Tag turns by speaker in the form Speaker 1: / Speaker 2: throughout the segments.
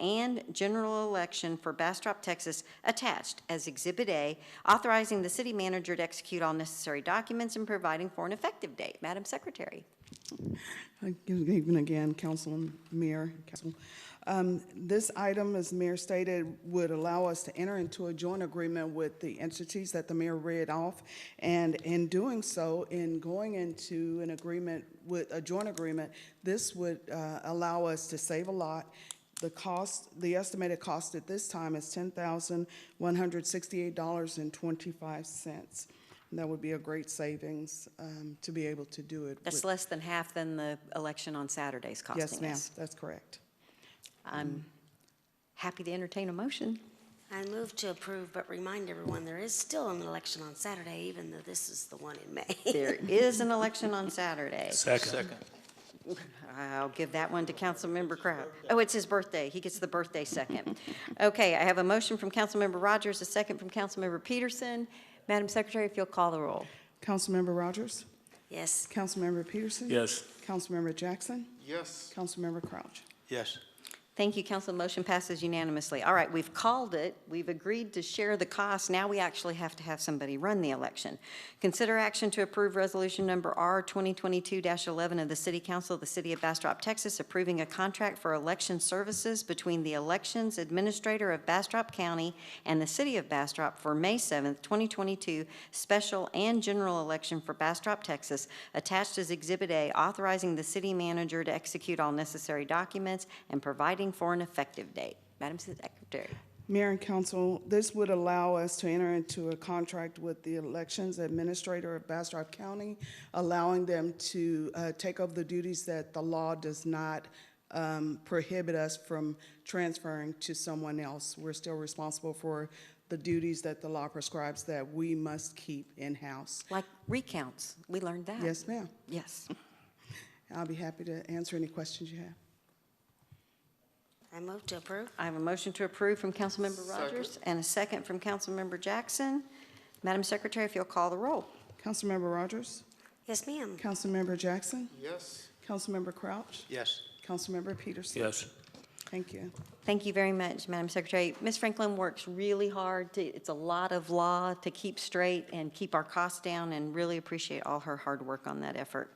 Speaker 1: and general election for Bastrop, Texas, attached as Exhibit A, authorizing the city manager to execute all necessary documents and providing for an effective date. Madam Secretary.
Speaker 2: Good evening again, Council and Mayor, Council. Um, This item, as Mayor stated, would allow us to enter into a joint agreement with the entities that the mayor read off. And in doing so, in going into an agreement with, a joint agreement, this would uh, allow us to save a lot. The cost, the estimated cost at this time is $10,168.25. And That would be a great savings um, to be able to do it. with-
Speaker 1: That's less than half than the election on Saturday's
Speaker 2: Yes,
Speaker 1: costing
Speaker 2: ma'am,
Speaker 1: us.
Speaker 2: that's correct.
Speaker 1: I'm happy to entertain a motion.
Speaker 3: I move to approve, but remind everyone, there is still an election on Saturday, even though this is the one in May.
Speaker 1: There is an election on Saturday.
Speaker 4: Second.
Speaker 1: I'll give that one to Councilmember Crowd. Oh, it's his birthday. He gets the birthday second. Okay, I have a motion from Councilmember Rogers, a second from Councilmember Peterson. Madam Secretary, if you'll call the roll.
Speaker 2: Councilmember Rogers?
Speaker 3: Yes,
Speaker 2: Councilmember Peterson?
Speaker 4: Yes.
Speaker 2: Councilmember Jackson?
Speaker 5: Yes.
Speaker 2: Councilmember Crouch?
Speaker 4: Yes.
Speaker 1: Thank you, council. Motion passes unanimously. All right, we've called it. We've agreed to share the cost. Now we actually have to have somebody run the election. Consider action to approve resolution number R 2022-11 of the City Council of the City of Bastrop, Texas, approving a contract for election services between the Elections Administrator of Bastrop County and the City of Bastrop for May 7th, 2022, special and general election for Bastrop, Texas, attached as Exhibit A, authorizing the city manager to execute all necessary documents and providing for an effective date. Madam Secretary.
Speaker 2: Mayor and council, this would allow us to enter into a contract with the Elections Administrator of Bastrop County, allowing them to uh, take over the duties that the law does not um, prohibit us from transferring to someone else. We're still responsible for the duties that the law prescribes that we must keep in-house.
Speaker 1: Like recounts, we learned that.
Speaker 2: Yes, ma'am.
Speaker 1: Yes.
Speaker 2: I'll be happy to answer any questions you have.
Speaker 3: I move to approve.
Speaker 1: I have a motion to approve from Councilmember Rogers and a second from Councilmember Jackson. Madam Secretary, if you'll call the roll.
Speaker 2: Councilmember Rogers?
Speaker 3: Yes, ma'am.
Speaker 2: Councilmember Jackson?
Speaker 5: Yes.
Speaker 2: Councilmember Crouch?
Speaker 4: Yes.
Speaker 2: Councilmember Peterson?
Speaker 4: Yes.
Speaker 2: Thank you.
Speaker 1: Thank you very much, Madam Secretary. Ms. Franklin works really hard. to- It's a lot of law to keep straight and keep our costs down, and really appreciate all her hard work on that effort.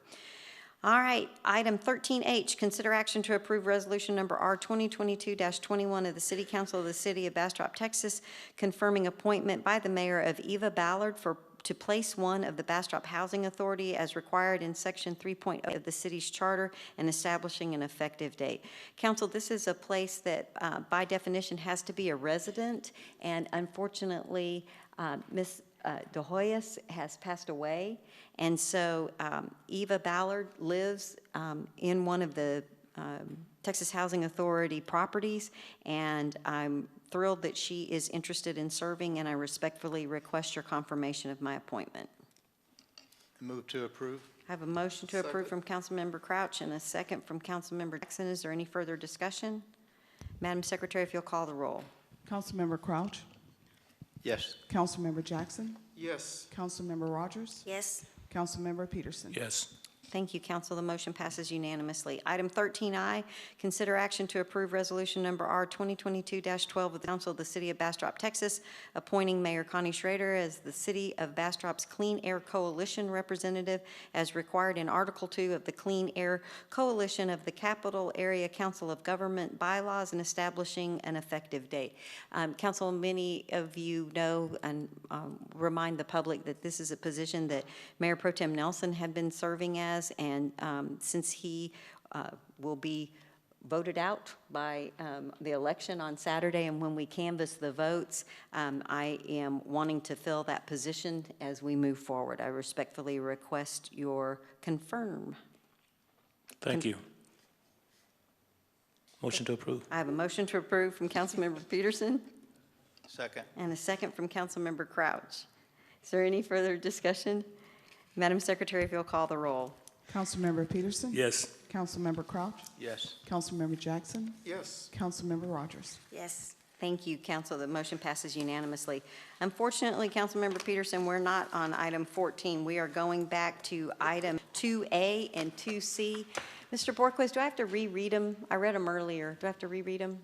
Speaker 1: All right, item 13H, consider action to approve resolution number R 2022-21 of the City Council of the City of Bastrop, Texas, confirming appointment by the mayor of Eva Ballard for, to place one of the Bastrop Housing Authority as required in Section 3.0 of the city's charter and establishing an effective date. Council, this is a place that uh, by definition has to be a resident, and unfortunately, uh, Ms. uh, De Hoyos has passed away, and so um, Eva Ballard lives um, in one of the um, Texas Housing Authority properties, and I'm thrilled that she is interested in serving, and I respectfully request your confirmation of my appointment.
Speaker 4: Move to approve?
Speaker 1: I have a motion to approve from Councilmember Crouch and a second from Councilmember Jackson. Is there any further discussion? Madam Secretary, if you'll call the roll.
Speaker 2: Councilmember Crouch?
Speaker 4: Yes.
Speaker 2: Councilmember Jackson?
Speaker 5: Yes.
Speaker 2: Councilmember Rogers?
Speaker 3: Yes,
Speaker 2: Councilmember Peterson?
Speaker 4: Yes.
Speaker 1: Thank you, council. The motion passes unanimously. Item 13I, consider action to approve resolution number R 2022-12 of the council of the city of Bastrop, Texas, appointing Mayor Connie Schrader as the city of Bastrop's Clean Air Coalition representative as required in Article 2 of the Clean Air Coalition of the Capital Area Council of Government bylaws and establishing an effective date. Um, Council, many of you know and um, remind the public that this is a position that Mayor Pro Tem Nelson had been serving as, and um, since he uh, will be voted out by um, the election on Saturday, and when we canvass the votes, um, I am wanting to fill that position as we move forward. I respectfully request your confirm.
Speaker 4: Thank you. Motion to approve?
Speaker 1: I have a motion to approve from Councilmember Peterson.
Speaker 4: Second.
Speaker 1: And a second from Councilmember Crouch. Is there any further discussion? Madam Secretary, if you'll call the roll.
Speaker 2: Councilmember Peterson?
Speaker 4: Yes.
Speaker 2: Councilmember Crouch?
Speaker 4: Yes.
Speaker 2: Councilmember Jackson?
Speaker 5: Yes.
Speaker 2: Councilmember Rogers?
Speaker 3: yes.
Speaker 1: Thank you, council. The motion passes unanimously. Unfortunately, Councilmember Peterson, we're not on item 14. We are going back to item 2A and 2C. Mr. Borquez, do I have to reread them? I read them earlier. Do I have to reread them?